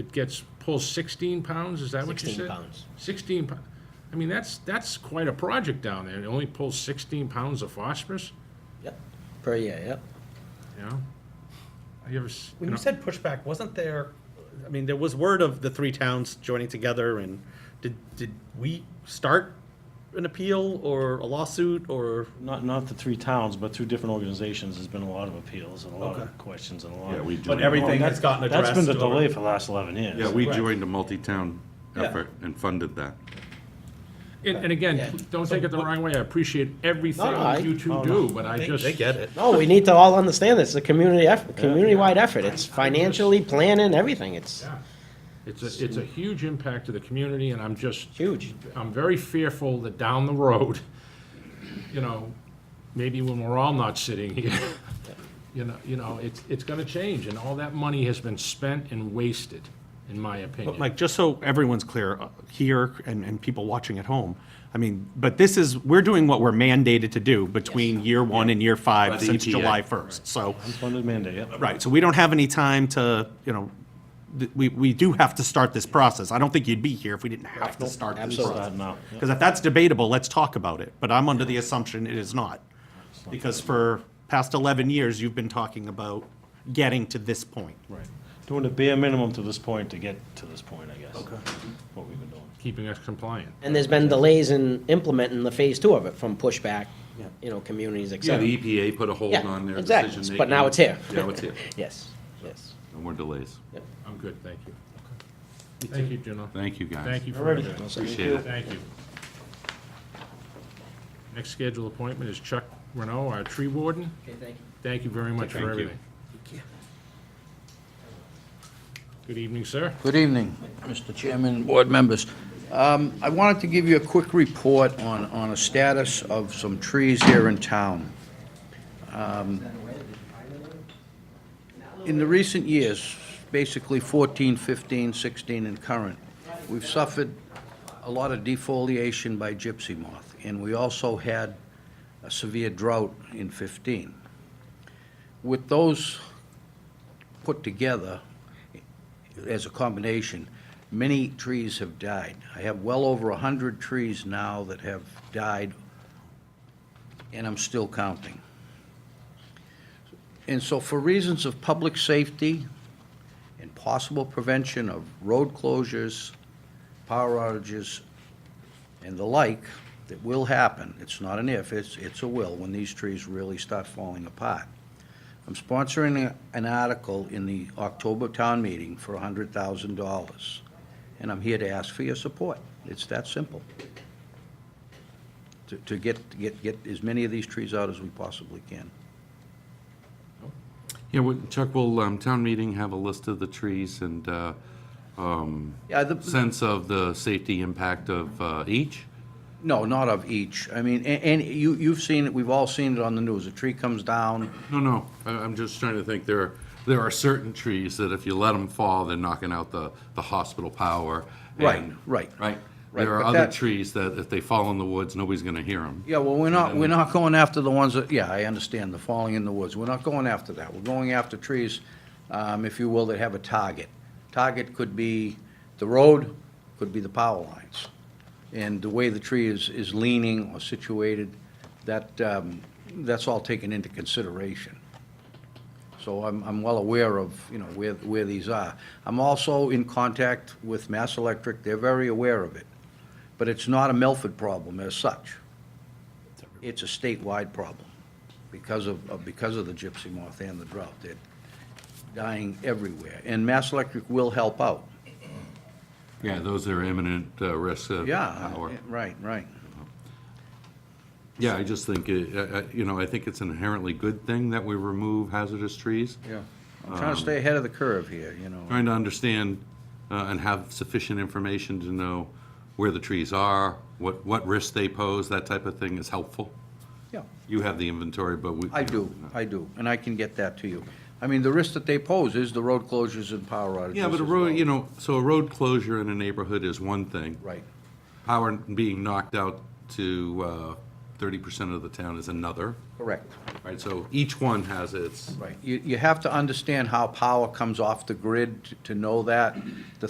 It gets, pulls 16 pounds, is that what you said? 16 pounds. 16 pounds. I mean, that's, that's quite a project down there. It only pulls 16 pounds of phosphorus, Yep, per year, yep. you know? Have you ever, s- When know, you said pushback, wasn't there, I mean, there was word of the three towns joining together and did, did we start an appeal or a lawsuit or? Not, not the three towns, but through different organizations, there's been a lot of appeals and a lot Okay. of questions and a lot Yeah, of. we do. But everything has gotten addressed? That's been the or- delay for the last eleven years. Yeah, we Right. joined a multi-town Yeah. effort and funded that. and, and again, Yeah. don't take it the wrong way. I appreciate everything No, no, I- you two no, no. do, but I They, just. they get it. No, we need to all understand this, it's a community effort, community-wide effort. It's financially, planning, everything, it's Yeah. It's a, it's a huge impact to the community, and I'm just, huge. I'm very fearful that down the road, you know, maybe when we're all not sitting here, you know, you know, it's, it's gonna change, and all that money has been spent and wasted, in my But opinion. Mike, just so everyone's clear uh, here and, and people watching at home, I mean, but this is, we're doing what we're mandated to do between year one and year By five the since EPA. July 1st. So, Funded mandate, yep. right, so we don't have any time to, you know, th- we, we do have to start this process. I don't think you'd be here if we didn't have to start this absolutely. process. Start now. Yep. Because if that's debatable, let's talk about it. But I'm under the assumption it is not. Because for past 11 years, you've been talking about getting to this point. Right. Doing the bare minimum to this point to get to this point, I guess. Okay. What we've been doing. Keeping us compliant. And there's been delays in implementing the phase two of it from pushback, you know, communities, et Yeah, cetera. e- the EPA put a hold Yeah, on their exactly. decision-making. But now it's here. Now it's here. Yes, yes. No more delays. I'm good, thank you. Thank you, Juno. Thank you, guys. Thank you for everything. Appreciate it. Thank you. Next scheduled appointment is Chuck Renault, our tree warden. Okay, thank you. Thank you very much Thank for you. everything. Good evening, sir. Good evening, Mr. Chairman and board members. Um, I wanted to give you a quick report on, on a status of some trees here in town. Um, In the recent years, basically 14, 15, 16, and current, we've suffered a lot of defoliation by gypsy moth, and we also had a severe drought in 15. With those put together, as a combination, many trees have died. I have well over 100 trees now that have died, and I'm still counting. And so for reasons of public safety and possible prevention of road closures, power outages, and the like, that will happen, it's not an if, it's, it's a will, when these trees really start falling apart. I'm sponsoring a- an article in the October town meeting for $100,000, and I'm here to ask for your support. It's that simple. To- To get, to get, get as many of these trees out as we possibly can. Yeah, we- Chuck, will um, town meeting have a list of the trees and uh, um, Yeah, the, sense of the safety impact of uh, each? no, not of each. I mean, a- and you, you've seen it, we've all seen it on the news. A tree comes down, No, no, I- I'm just trying to think, there, are- there are certain trees that if you let them fall, they're knocking out the, the hospital power. Right, and- right. Right? Right, There are but other that- trees that if they fall in the woods, nobody's gonna hear them. Yeah, well, we're not, we're not going after the ones that, yeah, I understand, the falling in the woods. We're not going after that. We're going after trees, um, if you will, that have a target. Target could be the road, could be the power lines. And the way the tree is, is leaning or situated, that, um, that's all taken into consideration. So I'm, I'm well aware of, you know, where, where these are. I'm also in contact with Mass Electric. They're very aware of it. But it's not a Milford problem as such it's a statewide problem because of, of- because of the gypsy moth and the drought. They're dying everywhere, and Mass Electric will help out. Yeah, those are imminent uh, risks of Yeah, power. right, right. Yeah, I just think, it- I- I- you know, I think it's an inherently good thing that we remove hazardous trees. Yeah. I'm Um, trying to stay ahead of the curve here, you know. Trying to understand uh, and have sufficient information to know where the trees are, what, what risks they pose, that type of thing is helpful. Yeah, You have the inventory, but we. I do, I do, and I can get that to you. I mean, the risk that they pose is the road closures and power outages Yeah, but a as road, well. you know, so a road closure in a neighborhood is one thing. Right, Power being knocked out to uh, thirty percent of the town is another, Correct. right? So each one has its. Right. You, you have to understand how power comes off the grid to- to know that. The